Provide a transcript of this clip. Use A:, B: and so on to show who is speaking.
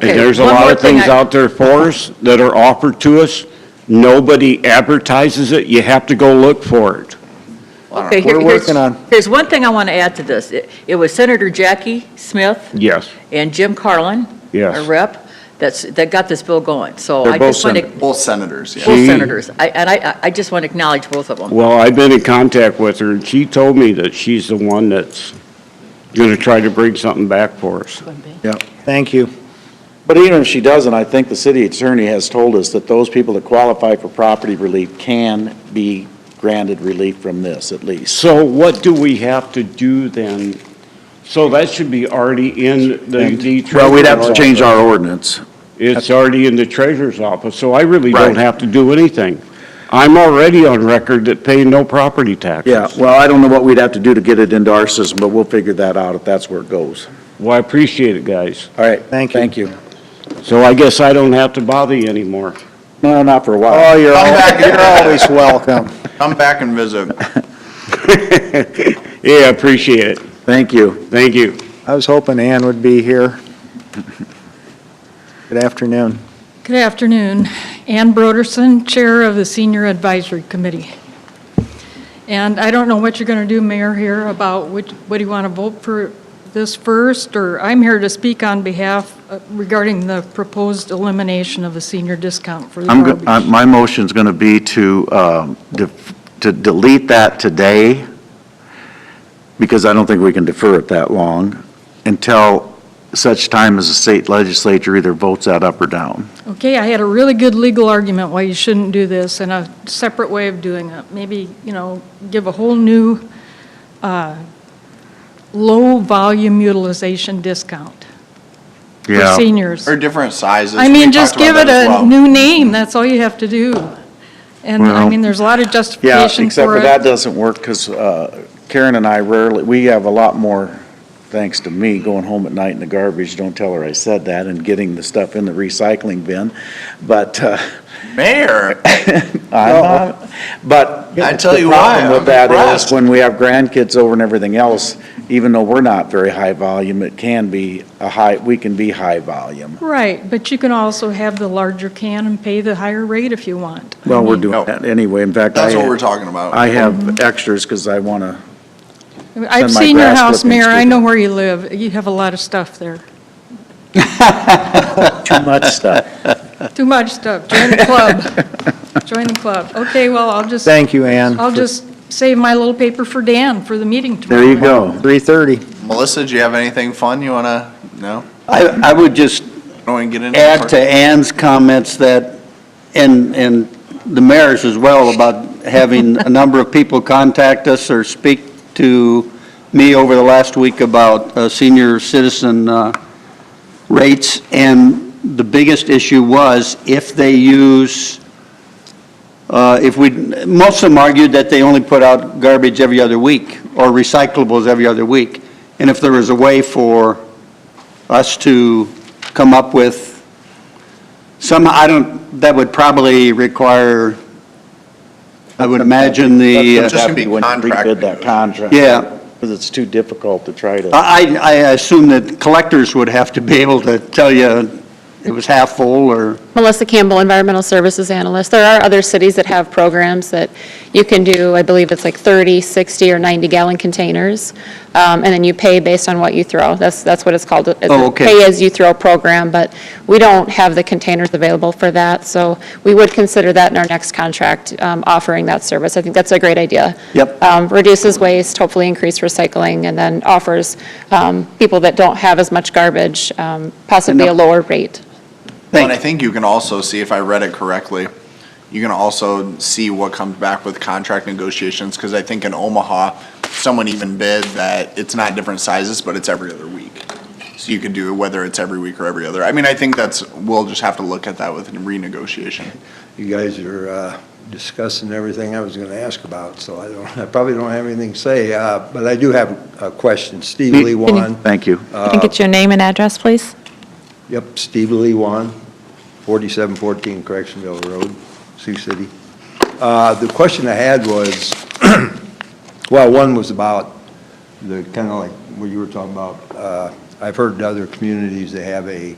A: And
B: Okay,
A: there's a
B: one
A: lot
B: more
A: of
B: thing
A: things
B: I-
A: out there for us that are offered to us. Nobody advertises it. You have to go look for it.
B: Okay, here-
C: We're
B: here's-
C: working on.
B: Here's one thing I want to add to this. It it was Senator Jackie Smith
A: Yes,
B: and Jim Carlin, our
A: yes.
B: rep, that's, that got this bill going. So
A: They're
B: I
A: both
B: just want to,
C: Both senators, yeah.
B: both
A: She-
B: senators, I- and I- I, I just want to acknowledge both of them.
A: Well, I've been in contact with her, and she told me that she's the one that's going to try to bring something back for us.
C: Thank you.
D: But even if she doesn't, I think the city attorney has told us that those people that qualify for property relief can be granted relief from this, at least.
A: So what do we have to do then? So that should be already in the the treasurer's office.
E: Well, we'd have to change our ordinance.
A: It's already in the treasurer's office, so I really don't
E: Right.
A: have to do anything. I'm already on record that paying no property taxes.
E: Yeah, well, I don't know what we'd have to do to get it into our system, but we'll figure that out if that's where it goes.
A: Well, I appreciate it, guys.
E: All right.
C: Thank you.
E: Thank you.
A: So I guess I don't have to bother you anymore.
D: No, not for a
C: Oh,
D: while.
C: you're
D: Come
C: al-
D: back.
C: you're always welcome. Come back and visit.
A: Yeah, I appreciate it.
E: Thank you.
A: Thank you.
C: I was hoping Ann would be here. Good afternoon.
F: Good afternoon. Ann Broderson, Chair of the Senior Advisory Committee. And I don't know what you're going to do, Mayor, here about which, what do you want to vote for this first? Or I'm here to speak on behalf uh, regarding the proposed elimination of the senior discount for the
E: I'm, go-
F: garbage.
E: uh, my motion's going to be to, um, def- to delete that today, because I don't think we can defer it that long, until such time as the state legislature either votes that up or down.
F: Okay, I had a really good legal argument why you shouldn't do this and a separate way of doing it. Maybe, you know, give a whole new uh, low-volume utilization discount for
E: Yeah.
F: seniors.
C: Or different sizes.
F: I
C: We
F: mean,
C: talked
F: just
C: about
F: give it
C: that as
F: a
C: well.
F: new name, that's all you have to do. And, I
E: Well-
F: mean, there's a lot of
D: Yeah,
F: justification
D: except
F: for
D: for that
F: it.
D: doesn't work because Karen and I rarely, we have a lot more, thanks to me, going home at night in the garbage, don't tell her I said that, and getting the stuff in the recycling bin. But, uh,
C: Mayor,
D: I'm not- but.
C: I tell you
D: The problem
C: why, I'm
D: with that is
C: impressed.
D: when we have grandkids over and everything else, even though we're not very high volume, it can be a high, we can be high volume.
F: Right, but you can also have the larger can and pay the higher rate if you want. I
E: Well, we're
F: mean,
E: doing
D: Oh.
C: No.
E: that anyway. In fact, I.
C: that's what we're talking about.
E: I have extras because I want to,
F: I've
D: send my
F: seen your
D: grass
F: house,
D: clippings
F: Mayor,
D: to
F: I
D: them.
F: know where you live, you have a lot of stuff there.
D: Too much stuff.
F: Too much stuff, join the club, join the club. Okay, well, I'll just,
C: Thank you, Ann.
F: I'll just save my little paper for Dan for the meeting tomorrow.
E: there you go.
C: 3:30.
G: Melissa, do you have anything fun you want to, no?
H: I, I would just
G: Don't want to get into it?
H: add to Ann's comments that, and, and the mayor's as well, about having a number of people contact us or speak to me over the last week about uh, senior citizen uh, rates. And the biggest issue was if they use, uh, if we, most of them argued that they only put out garbage every other week or recyclables every other week. And if there was a way for us to come up with some, I don't, that would probably require, I would imagine the,
C: That's
H: uh,
C: what
G: Just gonna be
D: happened when we Rebid
G: contract
D: that contract.
H: yeah,
D: Because it's too difficult to try to.
H: I, I I assume that collectors would have to be able to tell you it was half full or,
I: Melissa Campbell, Environmental Services Analyst. There are other cities that have programs that you can do, I believe it's like 30, 60, or 90-gallon containers, um, and then you pay based on what you throw. That's, that's what it's called. It's a
H: Oh, okay.
I: Pay-as-you-throw program, but we don't have the containers available for that, so we would consider that in our next contract, um, offering that service. I think that's a great idea.
H: Yep.
I: Um, Reduces waste, hopefully increase recycling, and then offers um, people that don't have as much garbage um, possibly a
H: Enough.
I: lower rate.
H: Thank
C: you.
G: And I think you can also see, if I read it correctly, you can also see what comes back with contract negotiations, because I think in Omaha, someone even bid that it's not different sizes, but it's every other week. So you could do whether it's every week or every other. I mean, I think that's, we'll just have to look at that with renegotiation.
J: You guys are uh, discussing everything I was going to ask about, so I don't, I probably don't have anything to say, uh, but I do have a question. Steve Lee Wan,
E: Thank you.
J: uh,
K: Can I get your name and address, please?
J: yep, Steve Lee Wan, 4714 Correctionville Road, Sioux City. Uh, The question I had was, well, one was about the, kind of like what you were talking about. Uh, I've heard other communities, they have a